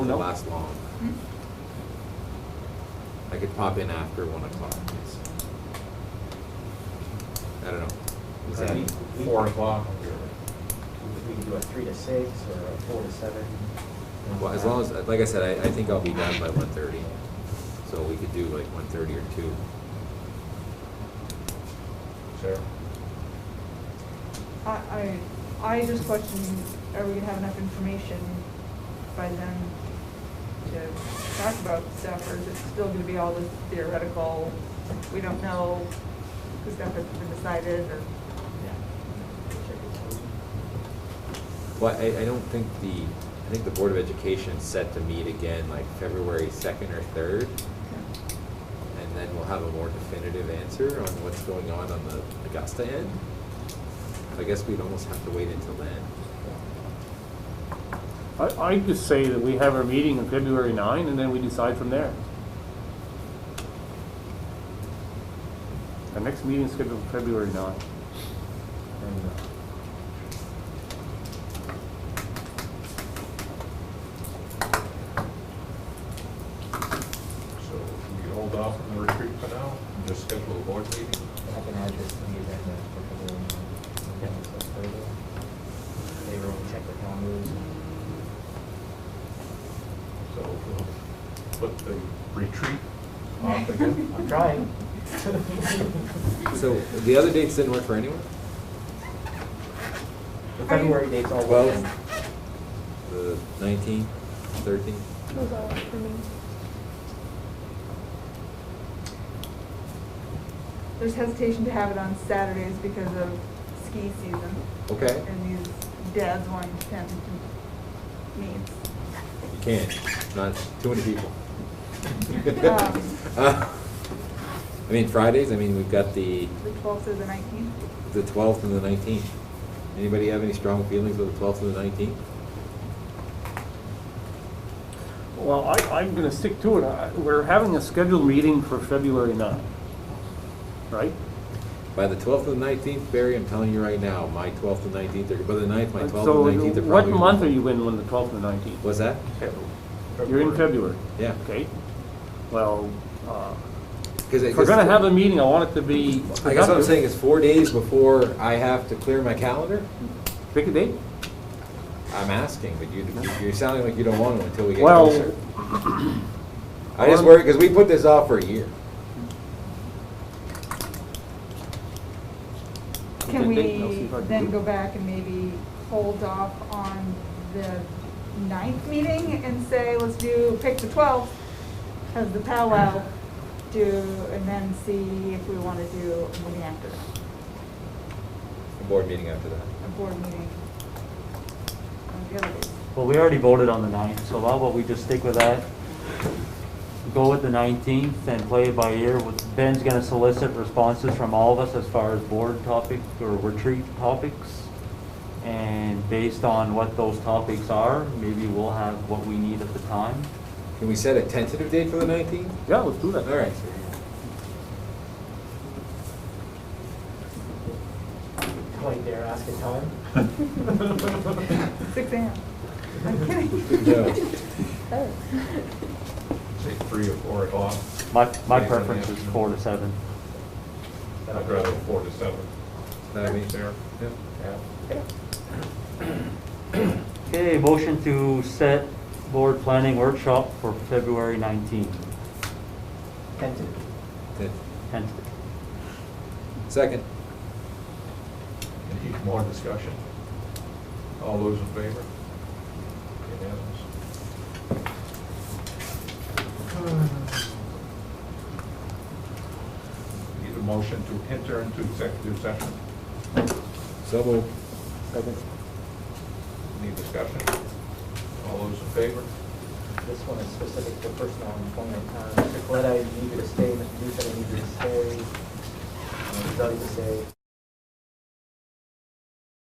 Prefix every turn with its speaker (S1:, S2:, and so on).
S1: doesn't
S2: Nope.
S1: last long.
S3: Hmm?
S1: I could pop in after one o'clock. yes. I don't know. Is
S4: Could
S1: that-
S4: we- we-
S2: Four o'clock.
S4: We can do a three to six or a four to seven.
S1: Well, as long as, like I said, I, I think I'll be done by one thirty, so we could do like one thirty or two.
S2: Sure.
S3: I, I, I just question, are we gonna have enough information by then to talk about stuff, or is it still gonna be all this theoretical, we don't know, because stuff hasn't been decided, or?
S1: Well, I, I don't think the, I think the Board of Education is set to meet again like February second or third, and then we'll have a more definitive answer on what's going on on the Augusta end. So I guess we'd almost have to wait until then.
S5: I, I just say that we have our meeting on February nine, and then we decide from there. Our next meeting is scheduled for February nine.
S4: uh,
S2: So we could hold off on the retreat for now, and just schedule a board meeting.
S4: I can add this to the agenda for the, um, discuss further. They will check the calendars.
S2: So we'll put the retreat off again.
S4: I'm trying.
S1: So the other dates didn't work for anyone?
S4: The February date's all.
S1: Twelve, the nineteenth, thirteenth?
S6: Those all for me.
S3: There's hesitation to have it on Saturdays because of ski season,
S1: Okay,
S3: and these dads wanting to attend meets.
S1: you can't, not too many people.
S3: Um,
S1: Uh, I mean, Fridays, I mean, we've got the,
S3: The twelfth or the nineteenth?
S1: the twelfth and the nineteenth. Anybody have any strong feelings about the twelfth and the nineteenth?
S5: Well, I, I'm gonna stick to it. I- We're having a scheduled meeting for February nine, right?
S1: By the twelfth and the nineteenth, Barry, I'm telling you right now, my twelfth and nineteenth, are by the ninth, my twelfth
S5: So
S1: and nineteenth are
S5: what
S1: probably.
S5: month are you in when the twelfth and nineteenth?
S1: What's that?
S5: You're in February,
S1: Yeah.
S5: okay? Well, uh,
S1: Cause it-
S5: if we're gonna
S1: cause-
S5: have a meeting, I want it to
S1: I guess
S5: be.
S1: what I'm
S5: productive.
S1: saying is four days before I have to clear my calendar,
S5: Pick a date.
S1: I'm asking, but you, you're sounding like you don't want to until we get
S5: Well-
S1: closer. I just worry, because we put this off for a year.
S3: Can
S5: Okay, Dayton, I'll see
S3: we
S5: if I can
S3: then
S5: do
S3: go
S5: it.
S3: back and maybe hold off on the ninth meeting and say, let's do, pick the twelfth as the powwow, do, and then see if we want to do a meeting after that,
S1: A board meeting after that.
S3: a board meeting. on the other days.
S7: Well, we already voted on the ninth, so how about we just stick with that? Go with the nineteenth and play it by ear. With- Ben's gonna solicit responses from all of us as far as board topic or retreat topics. And based on what those topics are, maybe we'll have what we need at the time.
S1: Can we set a tentative date for the nineteenth?
S5: Yeah, let's do
S1: All
S5: that.
S1: right.
S4: Point there, ask a time.
S3: Six AM. I'm kidding.
S1: Yeah.
S2: Say three or four o'clock.
S7: My, my
S2: Yeah,
S7: preference
S2: yeah.
S7: is four to seven.
S2: I'd rather four to seven.
S1: That means-
S2: There.
S1: yeah.
S2: Yeah.
S7: Okay, motion to set board planning workshop for February nineteenth,
S4: Tentative.
S1: Ten-
S7: tentative.
S1: Second.
S2: Any more discussion? All those in favor? Unanimous? Need a motion to enter into executive session?
S1: So moved.
S5: Second.
S2: Any discussion? All those in favor?
S4: This one is specific to personal employment. Uh, Mr. Coletta, I need you to stay. Mr. Duke, I need you to stay. Uh, Doug to stay.